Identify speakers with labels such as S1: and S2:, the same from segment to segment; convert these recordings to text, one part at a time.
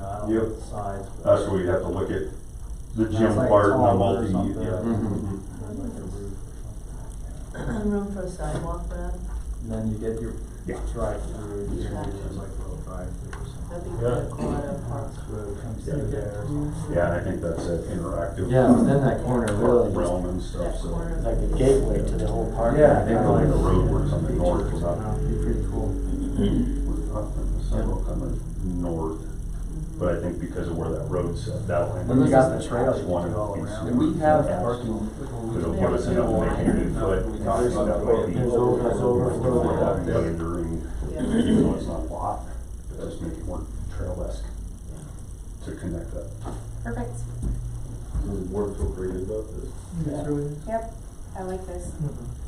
S1: uh,
S2: Yep.
S1: size.
S2: That's where we have to look at the
S1: That's
S2: gym
S1: like
S2: part and the
S1: taller or
S2: multi,
S1: something.
S2: yeah.
S3: Mhm.
S1: Like a roof or something.
S4: Room for a sidewalk, Brad?
S1: And Then you get your
S2: Yeah.
S1: drive-through, you
S4: Yeah.
S1: can use like a little drive-through or
S4: That'd
S1: something.
S4: be good, Colorado Park.
S1: Road comes through there.
S2: Yeah, and I think that's that interactive.
S5: Yeah, within that corner really,
S2: Realm and stuff,
S4: That
S2: so.
S4: corner.
S5: it's like a gateway to the whole park.
S1: Yeah,
S2: I think like a road or something north was up.
S1: That'd be pretty cool.
S2: We're up in the sidewalk coming north,
S4: Mm-hmm.
S2: but I think because of where that road's set, that line.
S1: And you got the
S2: is
S1: trail you can
S2: one
S1: do all
S2: piece.
S1: around.
S3: And we have
S2: Yeah.
S3: parking.
S2: It'll put us in a negative foot.
S3: We talked about that.
S2: That would be-
S5: There's over- there's overflow
S3: right up there.
S2: But during,
S4: Yeah.
S2: even though it's not a lot, but just make it more trail-esque to connect that.
S6: Perfect.
S7: Does the board feel great about this?
S6: Yep. I like this.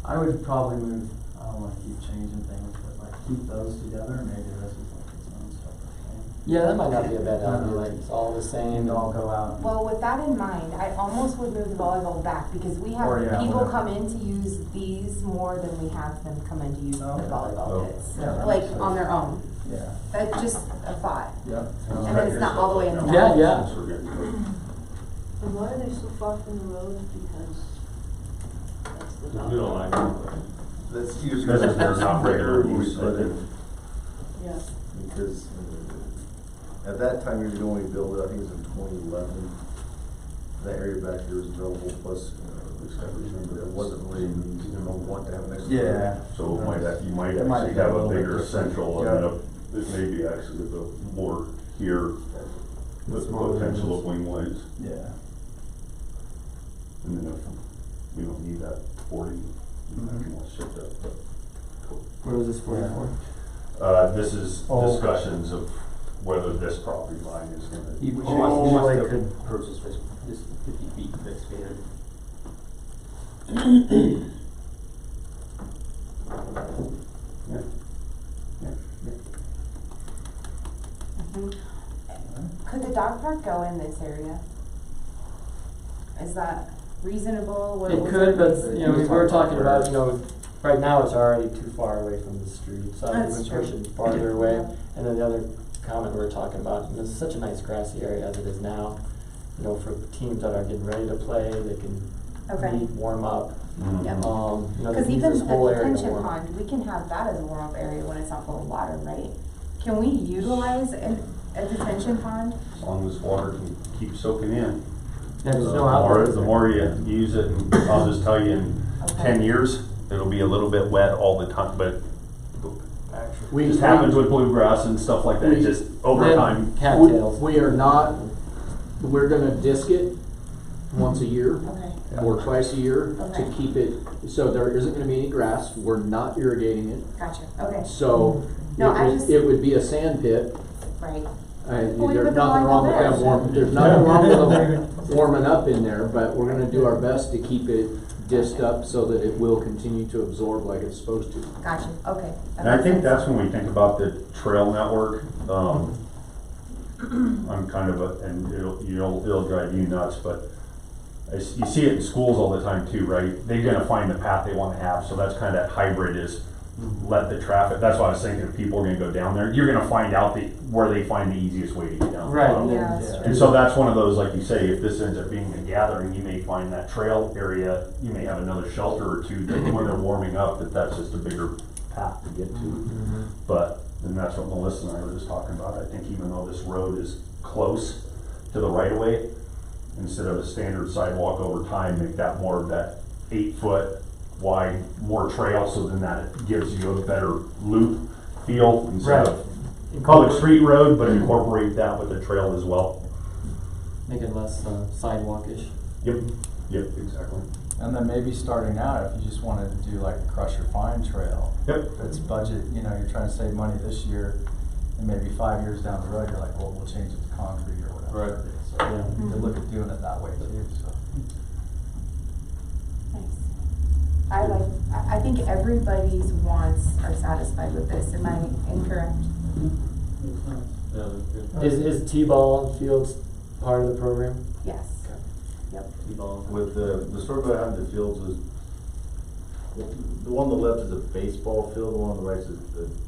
S1: I would probably move, I don't wanna keep changing things, but like keep those together, and maybe this is like its own separate thing.
S5: Yeah, that might not be a bad idea, like it's all the same.
S1: And I'll go out.
S6: Well, with that in mind, I almost would move the volleyball back because we have
S1: Or, yeah,
S6: people
S1: whatever.
S6: come in to use these more than we have them come in to use the
S1: Oh, okay.
S2: Oh.
S6: volleyball pits.
S1: Yeah, that
S6: Like
S1: makes sense.
S6: on their own.
S1: Yeah,
S6: That's just a thought.
S1: yep.
S6: And then it's not all the way in the
S5: Yeah,
S6: back.
S5: yeah.
S2: Since we're getting-
S4: And why are they so far from the road? Because that's the
S7: We don't
S4: dog.
S7: like it.
S3: That's usually.
S2: Because if there's not regular use, I think
S4: Yeah.
S3: Because uh, at that time, you could only build, I think it was in twenty eleven, that area back here was available, plus, uh, at least I remember, there wasn't really, you know, want to have an extra.
S1: Yeah.
S2: So it might, act- you might
S1: It might
S2: actually
S1: be a
S2: have a
S1: little bit
S2: bigger
S1: different.
S2: central and then a, it may be actually the more here with the
S1: Smaller
S2: potential
S1: windows.
S2: of wing lights.
S1: Yeah.
S2: And then if we don't need that forty, you know, I can all shift that, but. cool.
S5: What was this for?
S2: Uh, this is
S1: Oh.
S2: discussions of whether this property line is gonna.
S8: He
S1: Which
S8: wants,
S1: is-
S8: he
S1: which
S8: wants
S1: they
S8: to
S1: could-
S8: approach this, fif- this fifty feet of expanded.
S6: Mhm. Could the dog park go in this area? Is that reasonable? What-
S5: It
S6: what's
S5: could,
S6: the-
S5: but, you know, we were talking about, you know, right now it's already too far away from the street, so I
S6: That's
S5: would
S6: true.
S5: push it farther away. And then the other comment we were talking about, and this is such a nice grassy area as it is now, you know, for teams that are getting ready to play, they can
S6: Okay.
S5: meet, warm up.
S2: Mm-hmm.
S6: Yeah.
S5: Um, you know, they
S6: Because
S5: can
S6: even
S5: use
S6: the
S5: this whole area to
S6: detention
S5: warm up.
S6: pond, we can have that as a warm-up area when it's not full of water, right? Can we utilize an, a detention pond?
S2: As long as water can keep soaking in.
S5: Yeah, there's
S2: The
S5: no outlet,
S2: more-
S5: is
S2: The
S5: there?
S2: more you use it, and I'll just tell you, in ten years, it'll be a little bit wet all the time, but
S9: We,
S2: It just happens with bluegrass and stuff like
S5: Mm-hmm.
S2: that, it just over
S9: Then-
S2: time.
S5: Cattails.
S9: we are not, we're gonna disc it once a year
S6: Okay,
S9: or twice a year to
S6: Okay.
S9: keep it, so there isn't gonna be any grass, we're not irrigating it.
S6: gotcha, okay,
S9: So it
S6: No, I
S9: would,
S6: just-
S9: it would be a sand pit.
S6: right.
S9: I, there's
S6: we put the
S9: nothing
S6: line
S9: wrong with
S6: up there.
S9: that warm, there's nothing wrong with warming up in there, but we're gonna do our best to keep it disced up so that it will continue to absorb like it's supposed to.
S6: Gotcha, okay. that
S2: And I
S6: makes
S2: think
S6: sense.
S2: that's when we think about the trail network, um, I'm kind of a, and it'll, you'll, it'll drive you nuts, but I s you see it in schools all the time too, right? They're gonna find the path they wanna have, so that's kind of that hybrid is let the traffic, that's why I was thinking if people are gonna go down there, you're gonna find out the, where they find the easiest way to get down.
S5: Right,
S2: Um,
S5: and
S6: Yeah,
S5: then,
S6: that's
S5: yeah.
S2: And so that's one of those, like you say, if this ends up being a gathering, you may find that trail area, you may have another shelter or two that when they're warming up, that that's just a bigger path to get to. But, and that's what Melissa and I were just talking about, I think even though this road is close to the right of way, instead of a standard sidewalk over time, make that more of that eight foot wide, more trail, so then that gives you a better loop feel instead
S5: Right.
S2: of public street road, but incorporate that with the trail as well.
S5: Make it less uh, sidewalkish.
S2: Yep, yep, exactly.
S1: And then maybe starting out, if you just wanted to do like a crusher fine trail,
S2: Yep.
S1: if it's budget, you know, you're trying to save money this year, and maybe five years down the road, you're like, well, we'll change it to concrete or whatever.
S3: Right.
S1: Right.
S5: Yeah.
S1: So, you could look at doing it that way too, so.
S6: Nice. I like, I, I think everybody's wants are satisfied with this, am I incorrect?
S5: Is, is T-ball fields part of the program?
S6: Yes. Yep.
S7: With the, the store behind the fields is, the one on the left is a baseball field, the one on the right is the